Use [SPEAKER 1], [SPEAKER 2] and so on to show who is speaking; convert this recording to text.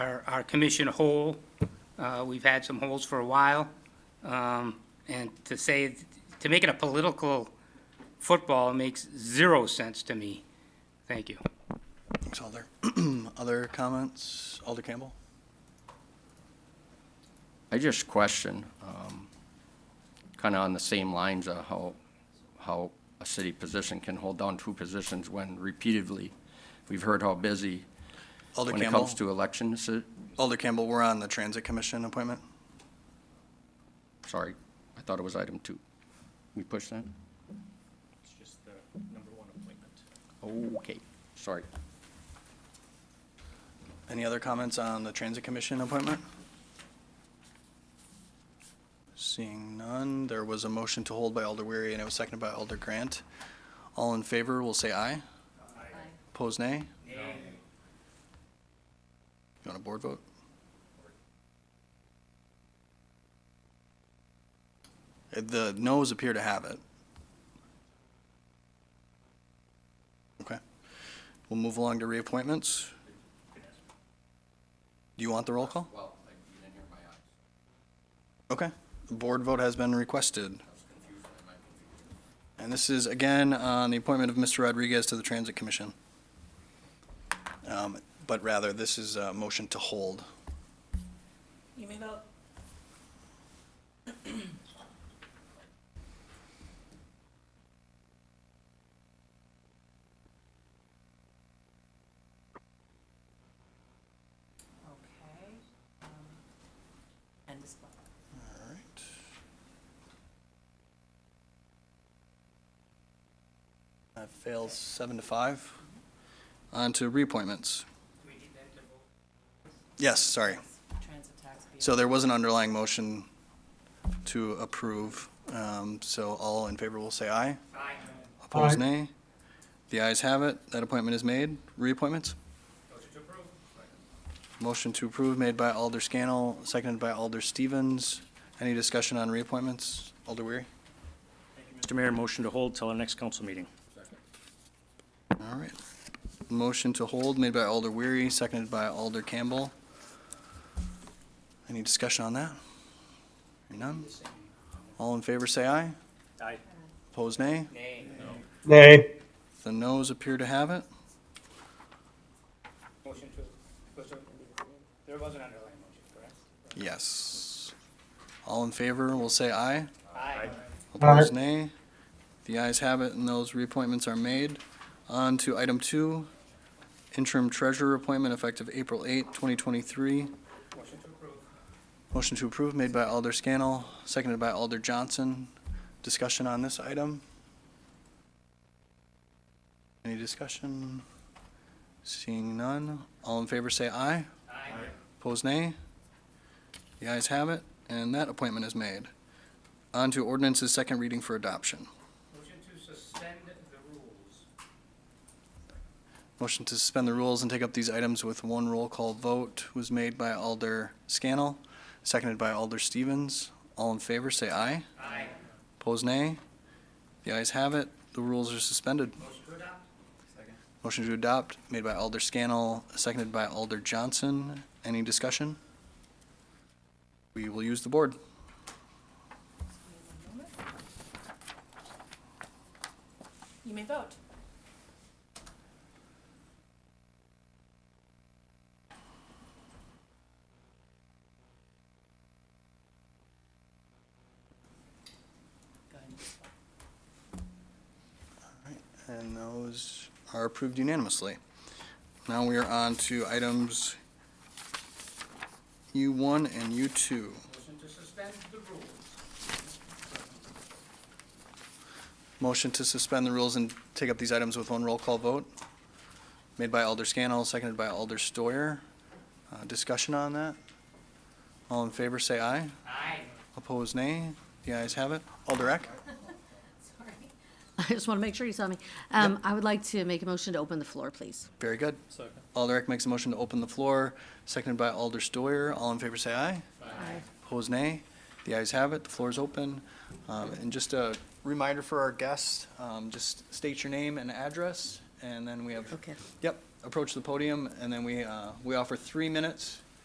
[SPEAKER 1] our, our commission hole. Uh, We've had some holes for a while. Um, And to say, to make it a political football makes zero sense to me. Thank you.
[SPEAKER 2] Thanks, Alder. Other comments? Alder Campbell?
[SPEAKER 3] I just question, um, kind of on the same lines of how, how a city position can hold down two positions when repeatedly, we've heard how busy
[SPEAKER 2] Alder
[SPEAKER 3] when it
[SPEAKER 2] Campbell?
[SPEAKER 3] comes to elections, uh,
[SPEAKER 2] Alder Campbell, we're on the Transit Commission appointment.
[SPEAKER 3] sorry, I thought it was item two. We push that?
[SPEAKER 4] It's just the number one appointment.
[SPEAKER 3] Okay, sorry.
[SPEAKER 2] Any other comments on the Transit Commission appointment? Seeing none, there was a motion to hold by Alder Weary, and it was seconded by Alder Grant. All in favor will say aye. Aye. Pose nay? Nay. You want a board vote? Uh, The noes appear to have it. Okay. We'll move along to reappointments. Do you want the roll call?
[SPEAKER 3] Well, you didn't hear my eyes.
[SPEAKER 2] Okay. The board vote has been requested. And this is, again, on the appointment of Mr. Rodriguez to the Transit Commission. Um, But rather, this is a motion to hold.
[SPEAKER 5] You may vote. Okay. um, And this one.
[SPEAKER 2] All right. That fails seven to five. On to reappointments. Yes, sorry.
[SPEAKER 5] Transit tax. bill.
[SPEAKER 2] So there was an underlying motion to approve, um, so all in favor will say aye. Aye. Opposed, nay. The ayes have it, that appointment is made. Reappointments? Motion to approve made by Alder Scannell, seconded by Alder Stevens. Any discussion on reappointments? Alder Weary?
[SPEAKER 4] Mr. Mayor, motion to hold till our next council meeting.
[SPEAKER 2] All right. Motion to hold made by Alder Weary, seconded by Alder Campbell. Any discussion on that? Hearing None? All in favor, say aye.
[SPEAKER 4] Aye.
[SPEAKER 2] Opposed, nay?
[SPEAKER 6] Nay.
[SPEAKER 2] The noes appear to have it.
[SPEAKER 1] Motion to, there was an underlying motion, correct?
[SPEAKER 2] Yes. All in favor will say aye.
[SPEAKER 1] Aye.
[SPEAKER 2] Opposed, nay. The ayes have it, and those reappointments are made. On to item two, interim treasurer appointment effective April 8, 2023.
[SPEAKER 1] Motion to approve.
[SPEAKER 2] Motion to approve made by Alder Scannell, seconded by Alder Johnson. Discussion on this item? Any discussion? Seeing none, all in favor say aye.
[SPEAKER 1] Aye.
[SPEAKER 2] Opposed, nay. The ayes have it, and that appointment is made. On to ordinance's second reading for adoption.
[SPEAKER 1] Motion to suspend the rules.
[SPEAKER 2] Motion to suspend the rules and take up these items with one roll call vote was made by Alder Scannell, seconded by Alder Stevens. All in favor, say aye.
[SPEAKER 1] Aye.
[SPEAKER 2] Opposed, nay. The ayes have it, the rules are suspended.
[SPEAKER 1] Motion to adopt.
[SPEAKER 2] Motion to adopt made by Alder Scannell, seconded by Alder Johnson. Any discussion? We will use the board.
[SPEAKER 5] You may vote. Go ahead and just vote.
[SPEAKER 2] And those are approved unanimously. Now we are on to items U1 and U2.
[SPEAKER 1] Motion to suspend the rules.
[SPEAKER 2] Motion to suspend the rules and take up these items with one roll call vote, made by Alder Scannell, seconded by Alder Stoyer. Uh, Discussion on that? All in favor, say aye.
[SPEAKER 1] Aye.
[SPEAKER 2] Opposed, nay. The ayes have it. Alder Eck?
[SPEAKER 7] Sorry. I just want to make sure you saw me. Um, I would like to make a motion to open the floor, please.
[SPEAKER 2] Very good. Alder Eck makes a motion to open the floor, seconded by Alder Stoyer. All in favor, say aye. Opposed, nay. The ayes have it. The floor is open. Um, And just a reminder for our guests, um, just state your name and address, and then we have
[SPEAKER 7] Okay.
[SPEAKER 2] Yep, approach the podium, and then we, uh, we offer three minutes